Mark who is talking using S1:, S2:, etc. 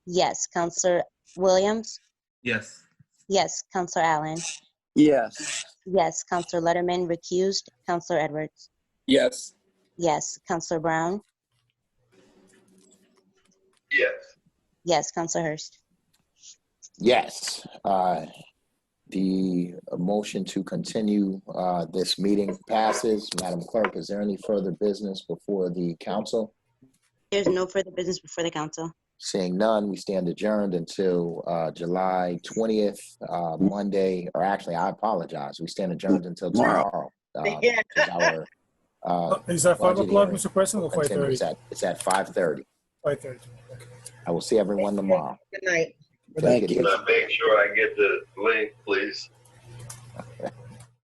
S1: Yes. Counselor Williams?
S2: Yes.
S1: Yes. Counselor Allen?
S3: Yes.
S1: Yes. Counselor Letterman recused. Counselor Edwards?
S3: Yes.
S1: Yes. Counselor Brown?
S2: Yes.
S1: Yes. Counselor Hurst?
S4: Yes, uh, the motion to continue uh, this meeting passes. Madam Clerk, is there any further business before the council?
S1: There's no further business before the council.
S4: Seeing none, we stand adjourned until uh, July 20th, uh, Monday, or actually, I apologize, we stand adjourned until tomorrow. uh,
S5: Yeah.
S4: because our, uh,
S6: Is that five
S4: Budget
S6: o'clock,
S4: hearing.
S6: Mr. President, or five thirty?
S4: It's at it's at 5:30.
S6: Five thirty.
S4: I will see everyone tomorrow.
S5: Good night.
S3: Thank you.
S2: Can I make sure I get the link, please?